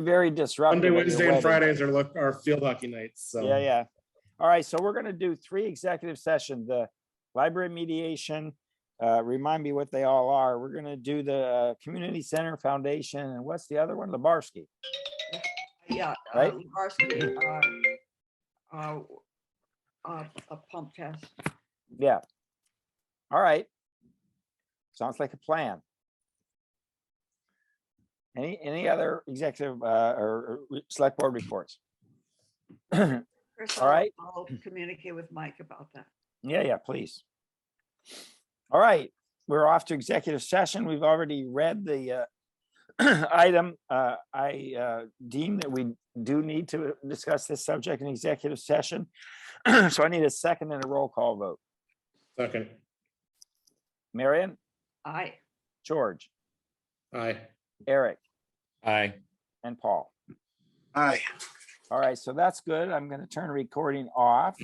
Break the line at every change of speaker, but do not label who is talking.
very disruptive.
Monday,
of your
Wednesday, and
wedding.
Fridays are look, are field hockey nights, so.
Yeah, yeah. All right, so we're gonna do three executive sessions, the library mediation. Uh, remind me what they all are. We're gonna do the uh, Community Center Foundation, and what's the other one? Lebarsky.
Yeah. uh,
Right?
Varsity, uh, uh, uh, A pump test.
Yeah. All right. Sounds like a plan. Any, any other executive, uh, or or re- select board reports? Yeah,
Chris,
All
I'll-
right.
I'll communicate with Mike about that.
yeah, please. All right, we're off to executive session. We've already read the, uh, item. Uh, I, uh, deem that we do need to discuss this subject in executive session. So I need a second and a roll call vote.
Second,
Marion,
I,
George,
aye.
Eric,
Aye.
and Paul.
Aye.
All right, so that's good. I'm gonna turn recording off.